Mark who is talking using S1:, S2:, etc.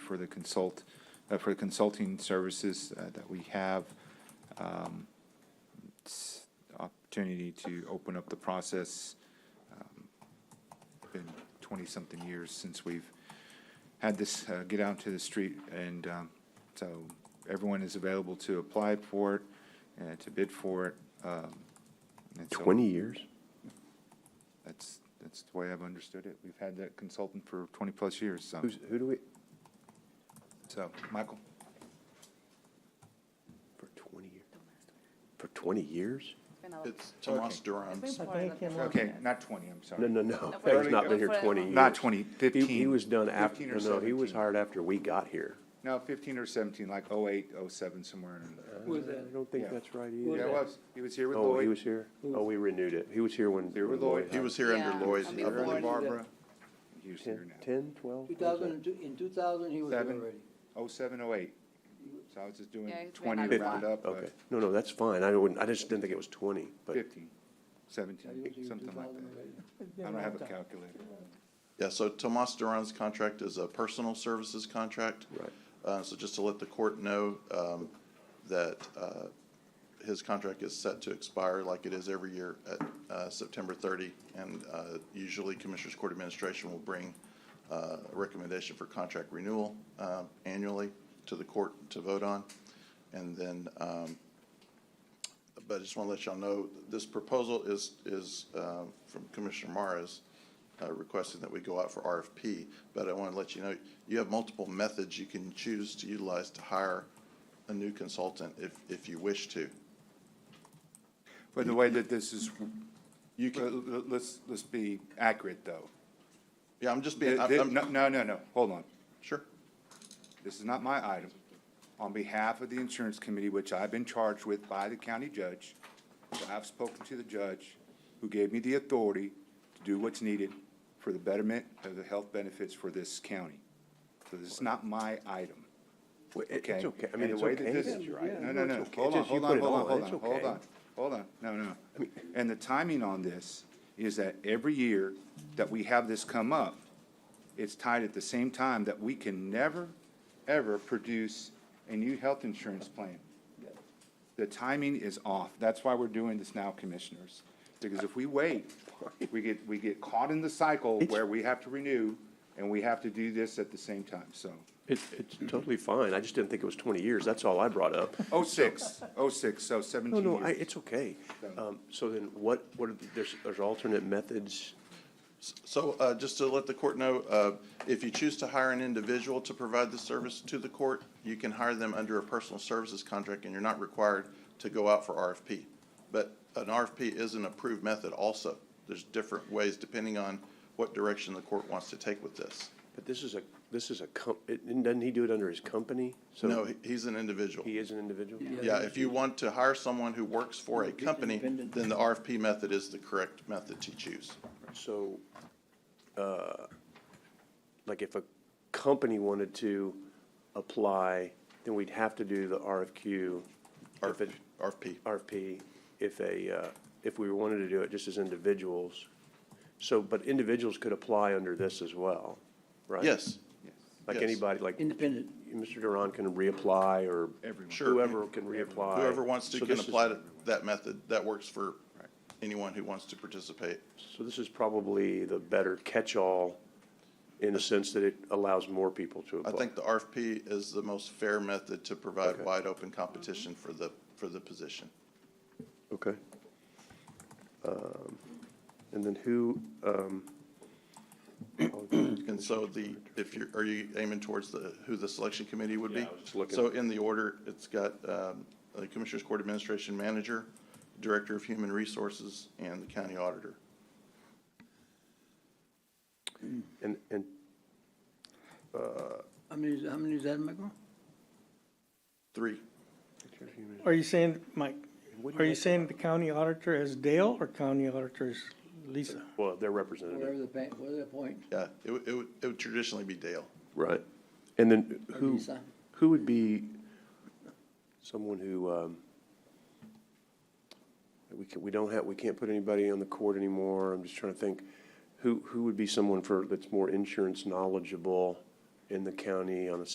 S1: for the consult, uh, for consulting services uh, that we have. Um, it's Opportunity to open up the process. Um, Been twenty-something years since we've had this uh, get out to the street, and um, so everyone is available to apply for it, and to bid for it. um, and so-
S2: 20 years?
S1: That's, that's the way I've understood it. We've had that consultant for 20-plus years, so,
S2: Who's, who do we?
S1: so, Michael?
S2: For 20 years? For 20 years?
S3: It's Tomas Durham.
S1: Okay, not 20, I'm
S2: No,
S1: sorry.
S2: no, no.
S4: No,
S2: He's not been here 20 years.
S1: Not 20, 15.
S2: He, he was done
S1: 15
S2: after,
S1: or
S2: no, he was
S1: 17.
S2: hired after we got here.
S1: No, 15 or 17, like 08, 07, somewhere in there.
S5: Who was
S2: I
S5: that?
S2: don't think
S1: Yeah.
S2: that's right
S1: Yeah, it
S2: either.
S1: was. He was here with
S2: Oh, he
S1: Lloyd.
S2: was here? Oh, we renewed it. He was here when.
S1: Here with
S2: when
S1: Lloyd.
S2: Lloyd
S3: He
S2: hired.
S3: was here under
S4: Yeah,
S3: Lloyd's.
S4: and
S1: Here
S3: other-
S1: under
S4: Before-
S1: Barbara. He was here
S2: 10,
S1: now.
S2: 10, 12?
S5: Two thousand and two, in two thousand, he was here
S1: Oh Seven. 07,
S5: already.
S1: 08. So I was just doing
S4: Yeah, he's been
S1: 20
S4: on the
S1: round
S4: block.
S1: up,
S2: Okay.
S1: but
S2: No, no, that's fine. I wouldn't, I just didn't think it was 20, but
S1: 15,
S5: Yeah, he was here
S1: 17,
S5: in
S1: something like
S5: 2000
S1: that.
S5: already.
S1: I don't have a calculator.
S3: Yeah, so Tomas Duran's contract is a personal services contract.
S2: Right.
S3: Uh, so just to let the court know, um, that, uh, his contract is set to expire like it is every year at, uh, September thirty. And, uh, usually Commissioners Court Administration will bring, uh, a recommendation for contract renewal, um, annually to the court to vote on. And then, um, but I just want to let y'all know, this proposal is, is uh, from Commissioner Mara's uh, requesting that we go out for RFP. But I want to let you know, you have multiple methods you can choose to utilize to hire a new consultant if, if you wish to.
S1: But the way that this is,
S3: You
S1: Well,
S3: can,
S1: l- l- let's, let's be accurate, though.
S3: yeah, I'm just
S1: Th-
S3: being, I'm-
S1: th-
S3: I'm,
S1: No, no, no, no, hold on.
S3: sure.
S1: This is not my item. On behalf of the insurance committee, which I've been charged with by the county judge, so I've spoken to the judge who gave me the authority to do what's needed for the betterment of the health benefits for this county. So this is not my item.
S2: Well, it-
S1: Okay.
S2: it's okay. I mean,
S1: And
S2: it's
S1: the way that
S2: okay.
S1: this-
S2: It's your item.
S1: No, no,
S2: It's
S1: no,
S2: okay.
S1: hold on,
S2: Just you
S1: hold
S2: put
S1: on,
S2: it
S1: hold on, hold on,
S2: It's
S1: hold
S2: okay.
S1: on, hold on, no, no. And the timing on this is that every year that we have this come up, it's tied at the same time that we can never, ever produce a new health insurance plan. The timing is off. That's why we're doing this now, commissioners. Because if we wait, we get, we get caught in the cycle
S2: It's-
S1: where we have to renew and we have to do this at the same time, so.
S2: It's, it's totally fine. I just didn't think it was 20 years. That's all I brought up.
S1: Oh, six, oh, six, so
S2: No,
S1: seventeen
S2: no, I,
S1: years.
S2: it's okay. Um, so then what, what, are the- there's, there's alternate methods?
S3: So uh, just to let the court know, uh, if you choose to hire an individual to provide the service to the court, you can hire them under a personal services contract, and you're not required to go out for RFP. But an RFP is an approved method also. There's different ways depending on what direction the court wants to take with this.
S2: But this is a, this is a com, it- and doesn't he do it under his company? So
S3: No, he- he's an individual.
S2: He is an individual?
S3: Yeah, if you want to hire someone who works for a company, then the RFP method is the correct method to choose.
S2: So, uh, like if a company wanted to apply, then we'd have to do the RFQ. if it-
S3: RFP.
S2: RFP, if a, uh, if we wanted to do it just as individuals. So, but individuals could apply under this as well, right?
S3: Yes,
S2: Like
S3: yes.
S2: anybody, like
S5: Independent.
S2: Mr. Duran can reapply or
S3: Sure.
S2: whoever can reapply.
S3: Whoever wants to
S2: So
S3: can
S2: this is-
S3: apply to that method. That works for anyone who wants to participate.
S2: So this is probably the better catch-all in the sense that it allows more people to
S3: I
S2: apply.
S3: think the RFP is the most fair method to provide
S2: Okay.
S3: wide open competition for the, for the position.
S2: Okay. Um, And then who, um,
S3: And so the, if you're, are you aiming towards the, who the selection committee would be?
S2: Yeah, I was just looking.
S3: So in the order, it's got um, the Commissioners Court Administration Manager, Director of Human Resources, and the County Auditor.
S2: and, and
S5: How many, is- how many is that, Michael?
S3: Three.
S6: Are you saying, Mike,
S2: What do you
S6: are you
S2: make
S6: saying the county auditor is Dale or county auditor is Lisa?
S2: well, their representative,
S5: Whatever the, pa- whatever the point.
S3: Yeah, it would, it would, it would traditionally be Dale.
S2: right? And then who,
S5: Lisa.
S2: who would be someone who, um, we can, we don't have, we can't put anybody on the court anymore. I'm just trying to think, who, who would be someone for, that's more insurance knowledgeable in the county on a